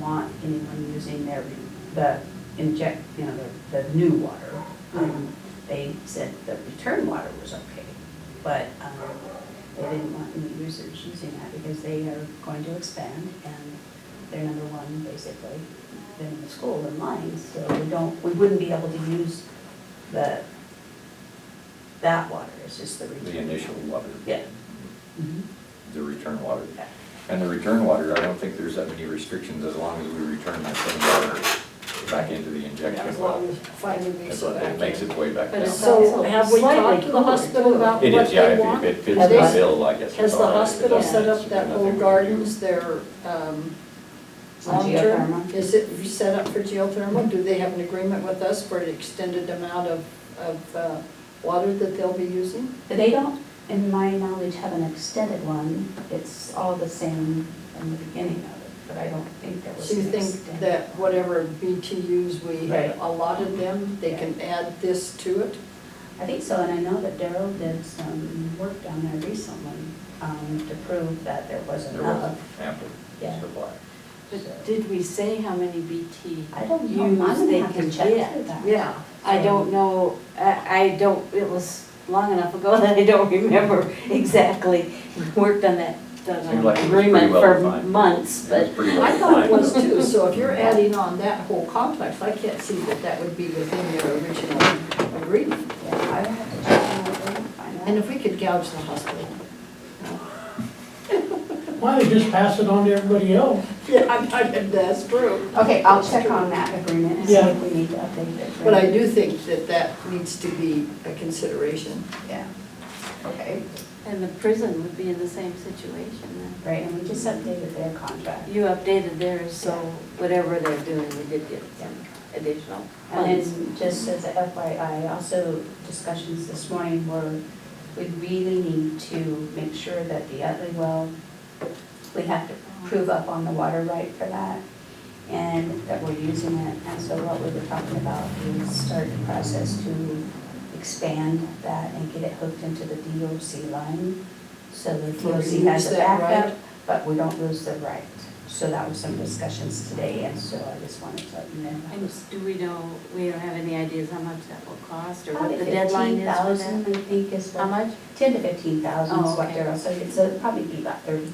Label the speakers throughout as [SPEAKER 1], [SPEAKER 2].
[SPEAKER 1] want anyone using their, the inject, you know, the, the new water. Um, They said the return water was okay, but, um, they didn't want any users using that because they are going to expand and they're number one basically in the school in line, so we don't, we wouldn't be able to use the, that water, it's just the return.
[SPEAKER 2] the initial water,
[SPEAKER 1] Yeah.
[SPEAKER 2] the return water.
[SPEAKER 1] Okay.
[SPEAKER 2] And the return water, I don't think there's that many restrictions as long as we return that same water back into the
[SPEAKER 3] As
[SPEAKER 2] injection well.
[SPEAKER 3] long as finally makes
[SPEAKER 2] That's
[SPEAKER 3] it
[SPEAKER 2] what,
[SPEAKER 3] back
[SPEAKER 2] it makes
[SPEAKER 3] in.
[SPEAKER 2] its way back
[SPEAKER 4] But
[SPEAKER 2] down.
[SPEAKER 4] it's
[SPEAKER 3] So have we
[SPEAKER 4] Slightly
[SPEAKER 3] talked to the
[SPEAKER 4] cooler,
[SPEAKER 3] hospital
[SPEAKER 4] too.
[SPEAKER 3] about
[SPEAKER 2] It
[SPEAKER 3] what
[SPEAKER 2] is,
[SPEAKER 3] they
[SPEAKER 2] yeah, if
[SPEAKER 3] want?
[SPEAKER 2] it- if it fits
[SPEAKER 3] Have
[SPEAKER 2] the
[SPEAKER 3] they-
[SPEAKER 2] bill, I guess.
[SPEAKER 3] Has
[SPEAKER 2] it's
[SPEAKER 3] the
[SPEAKER 2] all right. If it
[SPEAKER 3] hospital
[SPEAKER 2] doesn't,
[SPEAKER 3] set up
[SPEAKER 2] there's
[SPEAKER 3] that
[SPEAKER 2] nothing
[SPEAKER 3] whole
[SPEAKER 2] we can
[SPEAKER 3] gardens, their, um,
[SPEAKER 1] On
[SPEAKER 3] long-term?
[SPEAKER 1] geothermal?
[SPEAKER 3] Is it set up for geothermal? Do they have an agreement with us for an extended amount of, of uh, water that they'll be using?
[SPEAKER 1] But They don't, in my knowledge, have an extended one, it's all the same in the beginning of it, but I don't think there was
[SPEAKER 3] So you
[SPEAKER 1] an
[SPEAKER 3] think
[SPEAKER 1] extended.
[SPEAKER 3] that whatever BTUs we
[SPEAKER 1] Right.
[SPEAKER 3] had allotted them, they
[SPEAKER 1] Yeah.
[SPEAKER 3] can add this to it?
[SPEAKER 1] I think so, and I know that Daryl did some work down there recently, um, to prove that there
[SPEAKER 2] do.
[SPEAKER 1] wasn't
[SPEAKER 2] There was
[SPEAKER 3] uh,
[SPEAKER 1] enough.
[SPEAKER 2] ample
[SPEAKER 1] Yeah.
[SPEAKER 2] supply.
[SPEAKER 4] But did we say how many BT?
[SPEAKER 1] I don't know. I'm
[SPEAKER 4] use
[SPEAKER 1] gonna
[SPEAKER 4] they
[SPEAKER 1] have to
[SPEAKER 4] can
[SPEAKER 1] check
[SPEAKER 4] get?
[SPEAKER 1] into that.
[SPEAKER 4] Yeah, I don't know, I, I don't, it was long enough ago that I don't remember exactly. We Worked on that, done
[SPEAKER 2] Seemed like it was pretty
[SPEAKER 4] agreement
[SPEAKER 2] well
[SPEAKER 4] for
[SPEAKER 2] defined.
[SPEAKER 4] months,
[SPEAKER 2] It
[SPEAKER 4] but
[SPEAKER 2] was pretty well
[SPEAKER 3] I thought it
[SPEAKER 2] defined,
[SPEAKER 3] was
[SPEAKER 2] though.
[SPEAKER 3] too, so if you're adding on that whole complex, I can't see that that would be within your original agreement.
[SPEAKER 1] Yeah, I would have to check on that and find out.
[SPEAKER 3] And if we could gouge the hospital.
[SPEAKER 5] Why don't you just pass it on to everybody else?
[SPEAKER 3] Yeah, I'm talking, that's true.
[SPEAKER 1] Okay, I'll check on that agreement and see if we need to update it.
[SPEAKER 3] But I do think that that needs to be a consideration.
[SPEAKER 1] Yeah,
[SPEAKER 3] Okay.
[SPEAKER 4] And the prison would be in the same situation
[SPEAKER 1] right, and we just updated their contract.
[SPEAKER 4] then. You updated theirs, so whatever they're doing, we did get some additional
[SPEAKER 1] And
[SPEAKER 4] funds.
[SPEAKER 3] Um,
[SPEAKER 1] then, just as a FYI, also discussions this morning were, we really need to make sure that the Utley well, we have to prove up on the water right for that, and that we're using it. And so what we were talking about is start the process to expand that and get it hooked into the DOC line, so the
[SPEAKER 3] Where we
[SPEAKER 1] DOC has
[SPEAKER 3] lose
[SPEAKER 1] a
[SPEAKER 3] that right.
[SPEAKER 1] backup, but we don't lose the right. So that was some discussions today, and so I just wanted to let you know. that
[SPEAKER 4] And
[SPEAKER 1] was-
[SPEAKER 4] do we know, we don't have any ideas how much that will cost or
[SPEAKER 1] Probably
[SPEAKER 4] what the deadline is for that?
[SPEAKER 1] 15,000, I think is
[SPEAKER 4] How
[SPEAKER 1] what,
[SPEAKER 4] much?
[SPEAKER 1] ten to fifteen thousand is
[SPEAKER 4] Oh,
[SPEAKER 1] what
[SPEAKER 4] okay.
[SPEAKER 1] they're, so it's, it'd probably be about thirty.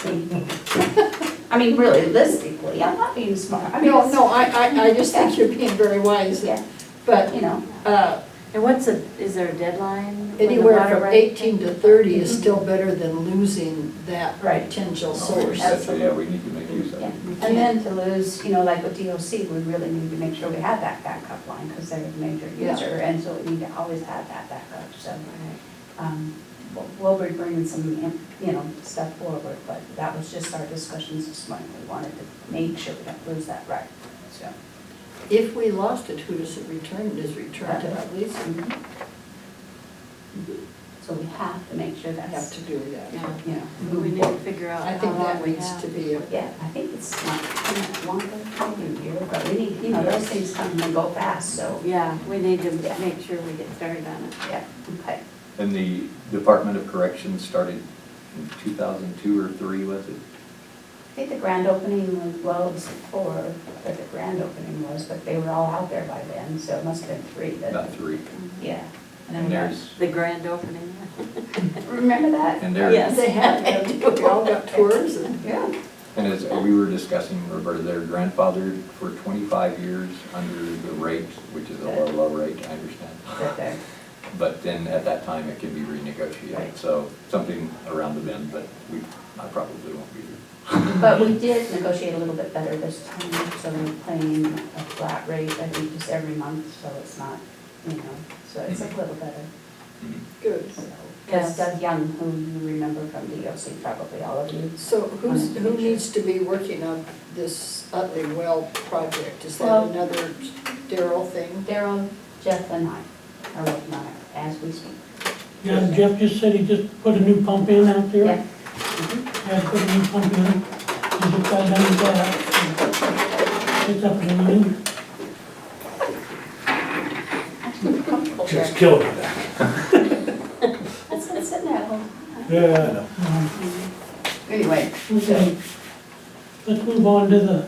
[SPEAKER 1] I mean, realistically, I'm not being smart, I mean,
[SPEAKER 3] No, no, I, I, I just think you're being very wise,
[SPEAKER 1] yeah,
[SPEAKER 3] but,
[SPEAKER 1] you know,
[SPEAKER 3] uh,
[SPEAKER 4] And what's a, is there a deadline? when the
[SPEAKER 3] anywhere
[SPEAKER 4] water
[SPEAKER 3] from
[SPEAKER 4] right-
[SPEAKER 3] eighteen to thirty is still better than losing that
[SPEAKER 1] Right.
[SPEAKER 3] potential
[SPEAKER 2] No, we
[SPEAKER 3] source.
[SPEAKER 2] said, Oh, Yeah, we need to make use of
[SPEAKER 1] yeah.
[SPEAKER 2] it.
[SPEAKER 1] And then to lose, you know, like with DOC, we really need to make sure we have that backup line, because they're a major
[SPEAKER 3] Yeah.
[SPEAKER 1] user, and so we need to always have that backup, so. um, we'll- We'll be bringing some, um, you know, stuff forward, but that was just our discussions this morning, we wanted to make sure we don't lose that right, so.
[SPEAKER 3] If we lost it, who does it return? It is returned to at least,
[SPEAKER 1] Mm-hmm. So we have to make sure
[SPEAKER 3] we have
[SPEAKER 1] that's,
[SPEAKER 3] to do that.
[SPEAKER 4] Yeah.
[SPEAKER 1] you know,
[SPEAKER 3] Mm-hmm.
[SPEAKER 4] We
[SPEAKER 1] moving
[SPEAKER 4] need to figure out
[SPEAKER 3] I
[SPEAKER 4] how
[SPEAKER 3] think
[SPEAKER 4] long
[SPEAKER 3] that
[SPEAKER 4] we
[SPEAKER 3] needs
[SPEAKER 4] have.
[SPEAKER 3] to be a
[SPEAKER 1] Yeah, I think it's not, longer than a year, but we need, you know, those things come and go fast, so,
[SPEAKER 4] Yeah, we need to
[SPEAKER 1] Yeah.
[SPEAKER 4] make sure we get started on it.
[SPEAKER 1] yeah, okay.
[SPEAKER 2] And the Department of Corrections started in 2002 or 3, was it?
[SPEAKER 1] I think the grand opening was, well, it was four, but the grand opening was, but they were all out there by then, so it must have been three
[SPEAKER 2] About
[SPEAKER 1] that,
[SPEAKER 2] 3.
[SPEAKER 1] yeah.
[SPEAKER 2] And there's,
[SPEAKER 4] The grand opening.
[SPEAKER 1] Remember that?
[SPEAKER 2] and there,
[SPEAKER 4] Yes.
[SPEAKER 3] They had, we all got tours and.
[SPEAKER 1] Yeah.
[SPEAKER 2] And as we were discussing, Roberta, they're grandfathered for 25 years under the rate, which is a low, low rate, I
[SPEAKER 1] Right
[SPEAKER 2] understand.
[SPEAKER 1] there.
[SPEAKER 2] But then at that time, it can be renegotiated,
[SPEAKER 1] Right.
[SPEAKER 2] so something around the bend, but we, I probably won't be here.
[SPEAKER 1] But we did negotiate a little bit better this time, so we're paying a flat rate, I think, just every month, so it's not, you know, so it's a little better.
[SPEAKER 3] Good.
[SPEAKER 1] Because Doug Young, who you remember from DOC, probably all of you.
[SPEAKER 3] So who's, who needs to be working on this Utley Well project? Is that
[SPEAKER 1] Well-
[SPEAKER 3] another Daryl thing?
[SPEAKER 1] Daryl, Jeff, and I are working on it as we speak.
[SPEAKER 5] Yeah, Jeff just said he just put a new pump in out there.
[SPEAKER 1] Yeah.
[SPEAKER 5] Yeah, put a new pump in. He just got done with that. It's up and running.
[SPEAKER 6] Just killed me back.
[SPEAKER 1] That's been sitting there. all-
[SPEAKER 6] Yeah.
[SPEAKER 1] Anyway,
[SPEAKER 5] Okay. Let's move on to the